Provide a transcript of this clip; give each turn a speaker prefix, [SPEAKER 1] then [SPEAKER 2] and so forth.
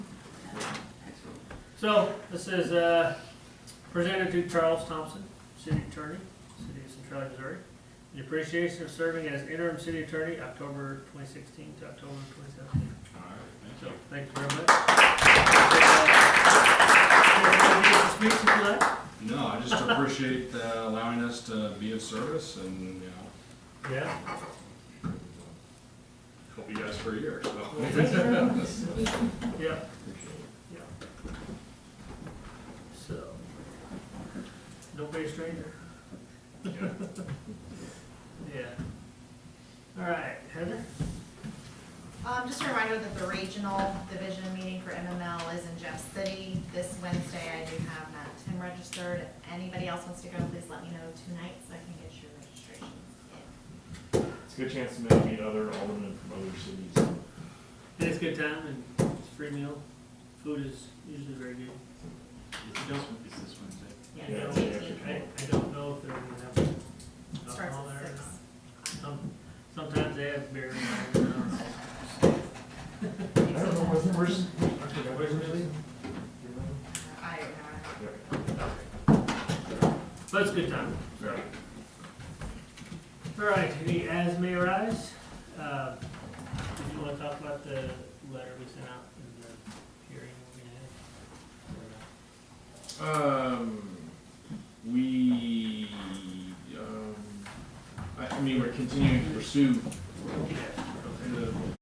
[SPEAKER 1] So, this is, uh, presented to Charles Thompson, city attorney, city of Centralia, Missouri, in appreciation of serving as interim city attorney, October twenty sixteen to October twenty seventeen.
[SPEAKER 2] All right,
[SPEAKER 1] So, thank you very much. Uh, Speech if you like.
[SPEAKER 2] thank you. No, I just appreciate uh, allowing us to be of service and, you know,
[SPEAKER 1] Yeah.
[SPEAKER 2] hope you guys for a year, so.
[SPEAKER 1] Yeah. Yeah. So, don't be a stranger.
[SPEAKER 2] Yeah.
[SPEAKER 1] Yeah. All right, Heather?
[SPEAKER 3] Um, just a reminder that the regional division meeting for MML is in Jeff City this Wednesday. I do have Matt Tim registered. If anybody else wants to go, please let me know tonight so I can get your registration.
[SPEAKER 4] It's a good chance to maybe meet other aldermen from other cities.
[SPEAKER 1] It's a good time and it's a free meal. Food is usually very good.
[SPEAKER 5] It's this Wednesday.
[SPEAKER 3] Yeah,
[SPEAKER 1] Yeah,
[SPEAKER 3] it's
[SPEAKER 1] yeah,
[SPEAKER 3] 18.
[SPEAKER 1] I, I don't know if they're gonna have
[SPEAKER 3] Starts
[SPEAKER 1] alcohol
[SPEAKER 3] at
[SPEAKER 1] there or
[SPEAKER 3] six.
[SPEAKER 1] not. Some, sometimes they have beer. and wine, I don't know.
[SPEAKER 4] I don't know, where's, where's, aren't there guys really?
[SPEAKER 3] I don't know.
[SPEAKER 1] But it's a good time. so. All right, the as may arise, uh, did you wanna talk about the letter we sent out in the hearing we're gonna have? Or uh, not?
[SPEAKER 2] Um, we, um, I, I mean, we're continuing to pursue
[SPEAKER 4] uh,